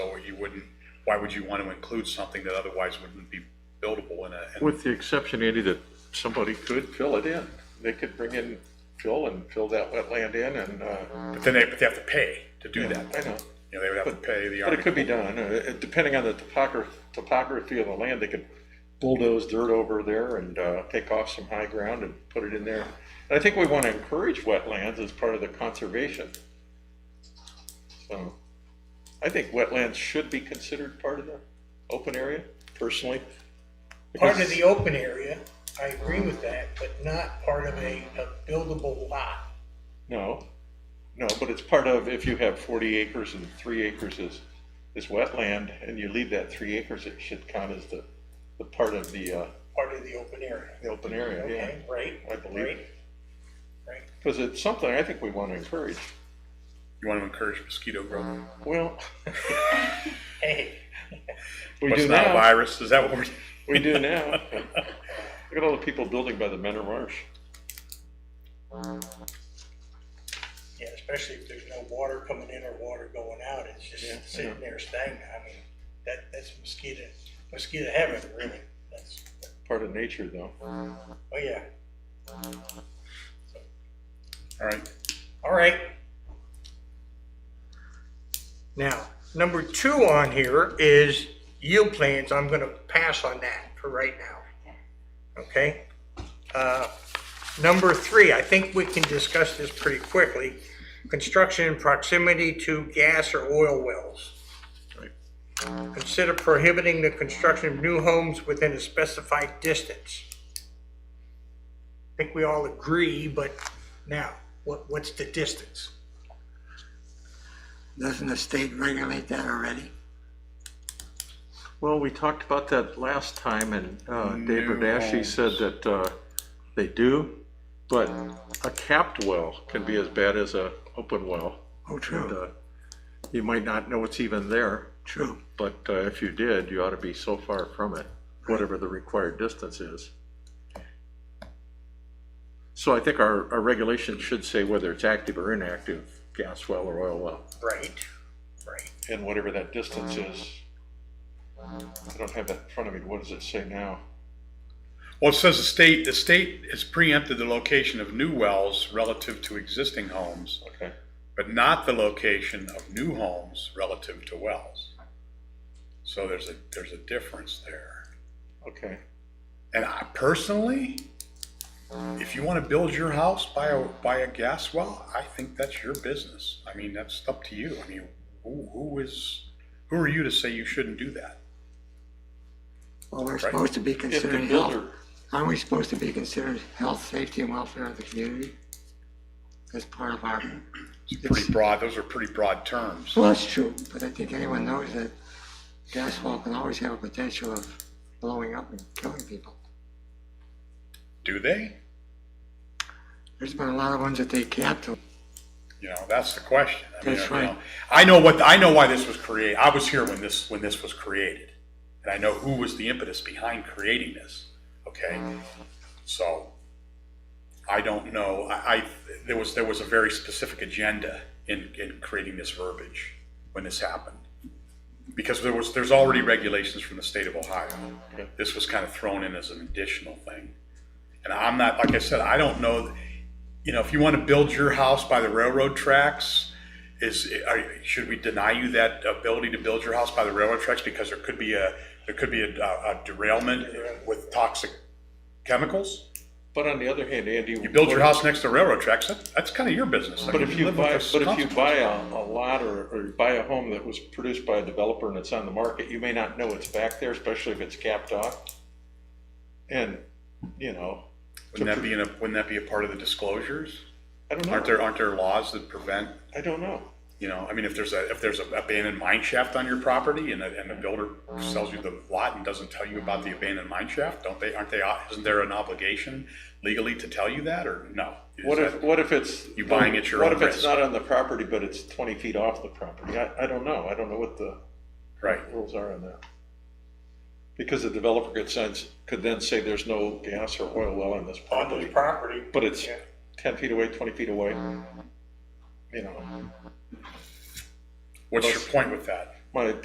you wouldn't, why would you want to include something that otherwise wouldn't be buildable in a? in- With the exception, Andy, that somebody could fill it in. They could bring in fill and fill that wetland in and, uh, But then they, but they have to pay to do that. I know. You know, they would have to pay the But it Army. could be done, Uh, it- depending on the topography, topography of the land, they could bulldoze dirt over there and uh, take off some high ground and put it in there. And I think we want to encourage wetlands as part of the conservation. So, I think wetlands should be considered part of the open area, personally. part of the open area, I agree with that, but not part of a, a buildable lot. No, no, but it's part of, if you have forty acres and three acres is, is wetland, and you leave that three acres, it should count as the, the part of the, uh, part of the open area, the open area, okay, right? I believe. right, Right, yeah. Because it's something I think we want to encourage. You want to encourage mosquito growth. Well, hey, we But do it's not a now, virus, is that what we're? we do now. Look at all the people building by the Menor Marsh. yeah, especially if there's no water coming in or water going out, it's Yeah, just sitting there stagnant, I mean, that, that's mosquito, mosquito heaven, really, that's, Part of nature, though. oh yeah, All right, all right. Now, number two on here is yield plans, I'm gonna pass on that for right now, okay? Uh, Number three, I think we can discuss this pretty quickly. Construction in proximity to gas or oil wells. Consider prohibiting the construction of new homes within a specified distance. I think we all agree, but now, what, what's the distance? Doesn't the state regulate that already? Well, we talked about that last time, and uh, Dave New Radaschi homes. said that uh, they do, but a capped well can be as bad as a open well. Oh, And, true, uh, You might not know it's even there, true. but uh, if you did, you ought to be so far from it, whatever the required distance is. So I think our, our regulation should say whether it's active or inactive, gas well or oil well. Right, right. And whatever that distance is, I don't have that in front of me, what does it say now? well, it says the state, the state has preempted the location of new wells relative to existing homes, Okay. but not the location of new homes relative to wells. So there's a, there's a difference there. Okay, And I personally, if you want to build your house by a, by a gas well, I think that's your business. I mean, that's up to you. I mean, who, who is, who are you to say you shouldn't do that? Well, we're Right. supposed to be if the considering health. builder, Aren't we supposed to be considered health, safety, and welfare of the community? As part of our, It's pretty broad, those are pretty broad terms. well, that's true, but I think anyone knows that gas well can always have a potential of blowing up and killing people. Do they? There's been a lot of ones that they capped, You know, that's the question. I mean, That's you know, right. I know what, I know why this was created. I was here when this, when this was created. And I know who was the impetus behind creating this, okay? So I don't know, I, I, there was, there was a very specific agenda in, in creating this verbiage when this happened. Because there was, there's already regulations from the state of Ohio. Okay. This was kind of thrown in as an additional thing. And I'm not, like I said, I don't know, you know, if you want to build your house by the railroad tracks, is, are, should we deny you that ability to build your house by the railroad tracks? Because there could be a, there could be a, a derailment with toxic chemicals? but on the other hand, Andy. You build your house next to railroad tracks, that, that's kind of your business. I But mean, if you live with buy, those but if you consequences. buy a, a lot or, or you buy a home that was produced by a developer and it's on the market, you may not know it's back there, especially if it's capped off. And, you know, Wouldn't that be in a, wouldn't that be a part of the disclosures? I don't Aren't know, there, aren't there laws that prevent, I don't know. you know, I mean, if there's a, if there's an abandoned mine shaft on your property and a, and the builder sells you the lot and doesn't tell you about the abandoned mine shaft, don't they, aren't they, uh, isn't there an obligation legally to tell you that or no? Is What that- if, what if it's? You buying at your What own if it's risk. not on the property, but it's twenty feet off the property? I, I don't know, I don't know what the Right, rules are on that. Because the developer could sense, could then say there's no gas or oil well on this On property, the property, but it's Yeah. ten feet away, twenty feet away. You know, what's your point with that? my,